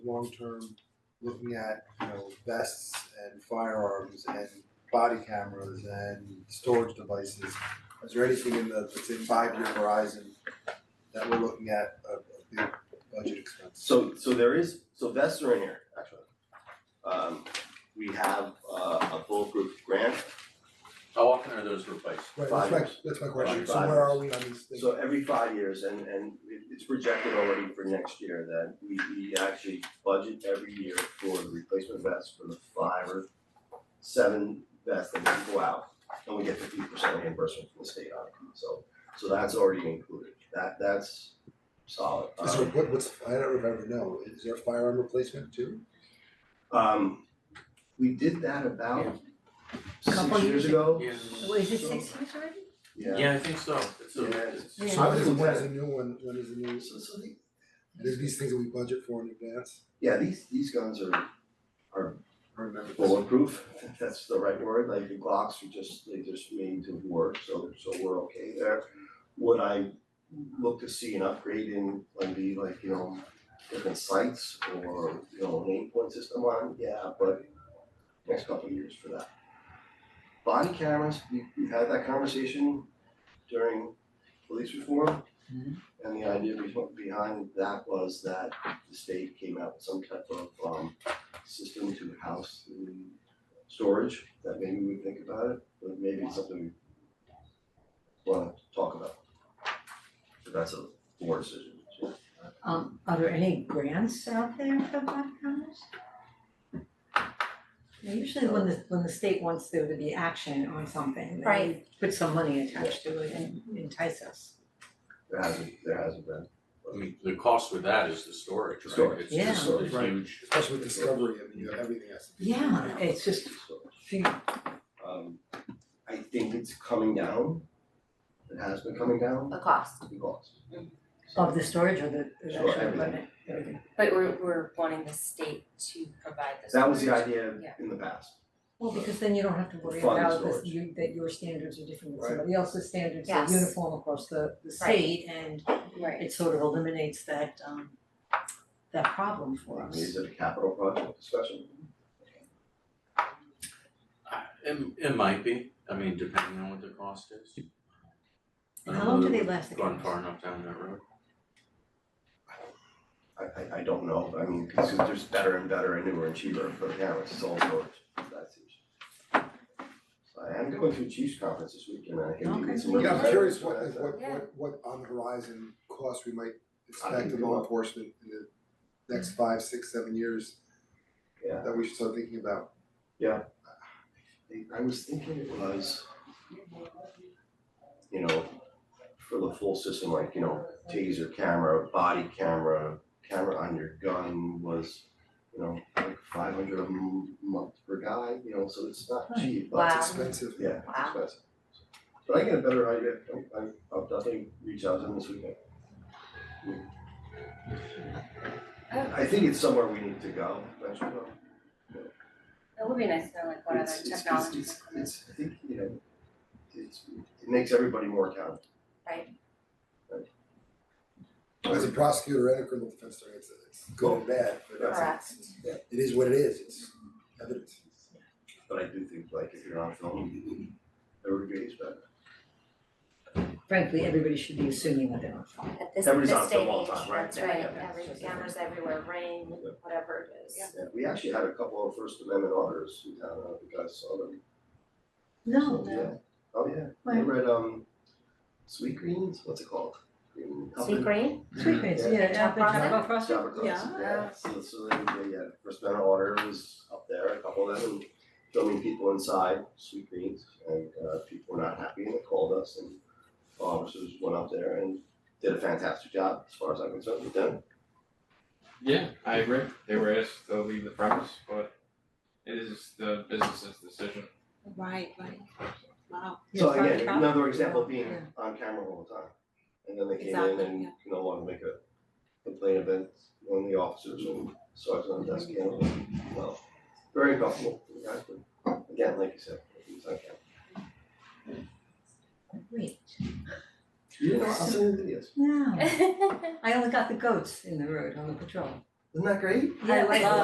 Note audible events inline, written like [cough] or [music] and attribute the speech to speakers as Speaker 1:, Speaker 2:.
Speaker 1: long-term, looking at, you know, vests and firearms and body cameras and storage devices. Is there anything in the, let's say, five-year horizon that we're looking at, a, a big budget expense?
Speaker 2: So so there is, so vests are in here, actually. Um we have uh a bulletproof grant,
Speaker 3: How often are those replaced?
Speaker 1: Right,
Speaker 2: Five
Speaker 1: that's my,
Speaker 2: years.
Speaker 1: that's my question, so
Speaker 2: Five
Speaker 1: where
Speaker 2: years.
Speaker 1: are we on these things?
Speaker 2: so every five years and and it it's projected already for next year that we we actually budget every year for the replacement vests for the five or seven vests that we go out and we get fifty percent reimbursement from the state on it, so so that's already included, that that's solid.
Speaker 1: Is there,
Speaker 2: Um,
Speaker 1: what, what's, I don't remember, no, is there firearm replacement too?
Speaker 2: Um, we did that about six
Speaker 4: Couple
Speaker 2: years
Speaker 4: years
Speaker 2: ago.
Speaker 3: Yeah.
Speaker 4: Wait, is it six years already?
Speaker 2: Yeah.
Speaker 3: Yeah, I think so, it's a,
Speaker 2: Yeah.
Speaker 3: it's-
Speaker 4: Yeah.
Speaker 1: So when is, when is the new one, when is the new,
Speaker 2: So, so the,
Speaker 1: there's these things that we budget for in advance?
Speaker 2: yeah, these, these guns are
Speaker 1: I remember this.
Speaker 2: bulletproof, if that's the right word, like the Glocks are just, they just made to work, so, so we're okay there. What I look to see an upgrade in, like be like, you know, different sights or, you know, an eight point system on, yeah, but next couple of years for that. Body cameras, we, we had that conversation during police reform. And the idea be- behind that was that the state came out with some type of, um, system to house the storage, that maybe we would think about it, but maybe it's something we wanna talk about. But that's a board decision, so.
Speaker 4: Um, are there any grants out there for black cameras? Now, Usually when the, when the state wants there to be action on something, they
Speaker 5: Right.
Speaker 4: put some money attached to it and entice us.
Speaker 2: there hasn't, there hasn't been.
Speaker 3: I mean, the cost with that is the storage, right?
Speaker 2: Storage.
Speaker 3: It's just a
Speaker 2: Yeah.
Speaker 3: huge,
Speaker 1: Especially with discovery, I mean, you know, everything has to be.
Speaker 4: Yeah, it's just,
Speaker 2: So,
Speaker 4: few-
Speaker 2: Um, I think it's coming down, it has been coming down,
Speaker 5: the cost,
Speaker 2: the cost.
Speaker 4: of the storage or the, the
Speaker 2: Sure,
Speaker 4: actual
Speaker 2: everything.
Speaker 4: equipment, everything.
Speaker 5: but we're we're wanting the state to provide this.
Speaker 2: That was the idea
Speaker 5: Yeah.
Speaker 2: in the past,
Speaker 4: Well, because then you don't have to worry
Speaker 2: Fund
Speaker 4: about this,
Speaker 2: storage.
Speaker 4: you, that your standards are different than
Speaker 2: Right.
Speaker 4: somebody else's standards, they're
Speaker 5: Yes.
Speaker 4: uniform across the, the
Speaker 5: Right.
Speaker 4: state and
Speaker 5: Right,
Speaker 4: it sort of eliminates that, um, that problem for us.
Speaker 2: is it a capital project discussion?
Speaker 3: I- it, it might be, I mean, depending on what the cost is. I
Speaker 4: And how
Speaker 3: don't
Speaker 4: long
Speaker 3: know that
Speaker 4: do they
Speaker 3: we've
Speaker 4: last, the
Speaker 3: Gone
Speaker 4: cameras?
Speaker 3: far enough down that road.
Speaker 2: I I I don't know, but I mean, because there's better and better and newer and cheaper for the cameras, it's all storage, that's huge. So I am going to a Chiefs conference this weekend, and I hate to
Speaker 4: Okay.
Speaker 2: get some.
Speaker 1: Yeah, I'm
Speaker 2: representatives
Speaker 1: curious
Speaker 2: for
Speaker 1: what,
Speaker 2: that,
Speaker 1: what,
Speaker 5: Yeah.
Speaker 1: what, what on the horizon costs we might
Speaker 2: I think
Speaker 1: expect of
Speaker 2: we
Speaker 1: law
Speaker 2: will.
Speaker 1: enforcement in the next five, six, seven years
Speaker 2: Yeah,
Speaker 1: that we should start thinking about.
Speaker 2: I- I was thinking it was, you know, for the full system, like, you know, taser camera, body camera, camera on your gun was, you know, like five hundred a m- month per guy, you know, so it's not cheap, but it's
Speaker 5: Wow.
Speaker 1: It's
Speaker 6: Um,
Speaker 1: expensive.
Speaker 2: Yeah,
Speaker 5: Wow.
Speaker 2: expensive. But I get a better idea, I- I, I'll definitely reach out to them this weekend.
Speaker 5: Oh.
Speaker 2: I think it's somewhere we need to go, eventually.
Speaker 5: that would be nice to know like what other
Speaker 2: It's- it's-
Speaker 5: technologies
Speaker 2: It's,
Speaker 5: are coming.
Speaker 2: it's, I think, you know, it's, it makes everybody more accountable.
Speaker 5: Right.
Speaker 2: Right.
Speaker 1: As a prosecutor and a criminal defense attorney, it's, it's good and bad, but
Speaker 5: Correct.
Speaker 1: it's, it's- it is what it is, it's evidence.
Speaker 2: But I do think like if you're on film, everybody's better.
Speaker 4: frankly, everybody should be assuming that they're on fire.
Speaker 5: At this,
Speaker 2: Everybody's
Speaker 5: this
Speaker 2: on film
Speaker 5: day
Speaker 2: all
Speaker 5: and
Speaker 2: the time,
Speaker 5: age,
Speaker 2: right?
Speaker 5: that's right,
Speaker 4: Yeah.
Speaker 5: every cameras everywhere, rain,
Speaker 2: Yeah.
Speaker 5: whatever it is.
Speaker 2: Yeah, we actually had a couple of First Amendment auditors in town, I don't know if you guys saw them.
Speaker 4: No,
Speaker 2: Yeah, oh yeah, they
Speaker 4: Right.
Speaker 2: read um, Sweet Greens, what's it called? Green-
Speaker 5: Sea green,
Speaker 4: sweet greens,
Speaker 2: Yeah.
Speaker 4: yeah,
Speaker 5: Yeah.
Speaker 4: apple
Speaker 5: Chocolate.
Speaker 4: chocolate frosting,
Speaker 2: Java Crust,
Speaker 4: yeah.
Speaker 2: yeah, so so they they had first man order was up there, a couple of them, and filming people inside, Sweet Greens, and uh people were not happy and they called us and officers went up there and did a fantastic job as far as I'm concerned with them.
Speaker 7: Yeah, I agree. They were asked to leave the premise, but it is the business's decision.
Speaker 8: Right, right, wow.
Speaker 5: [laughs]
Speaker 4: Yeah,
Speaker 2: So
Speaker 4: chocolate
Speaker 2: again,
Speaker 4: chocolate.
Speaker 2: another example of being
Speaker 4: Yeah.
Speaker 2: on camera all the time. And then they came in
Speaker 8: Exactly,
Speaker 2: and
Speaker 8: yeah.
Speaker 2: no longer make a complaint about one of the officers and sergeant on the desk handled it well. Very comfortable, for the guys, but again, like you said, it's on camera.
Speaker 4: Wait,
Speaker 2: You know, I'll send you the videos.
Speaker 4: no, I only got the goats in the road on the patrol.
Speaker 6: Isn't that great?
Speaker 1: Yeah,
Speaker 4: I
Speaker 1: like-
Speaker 4: love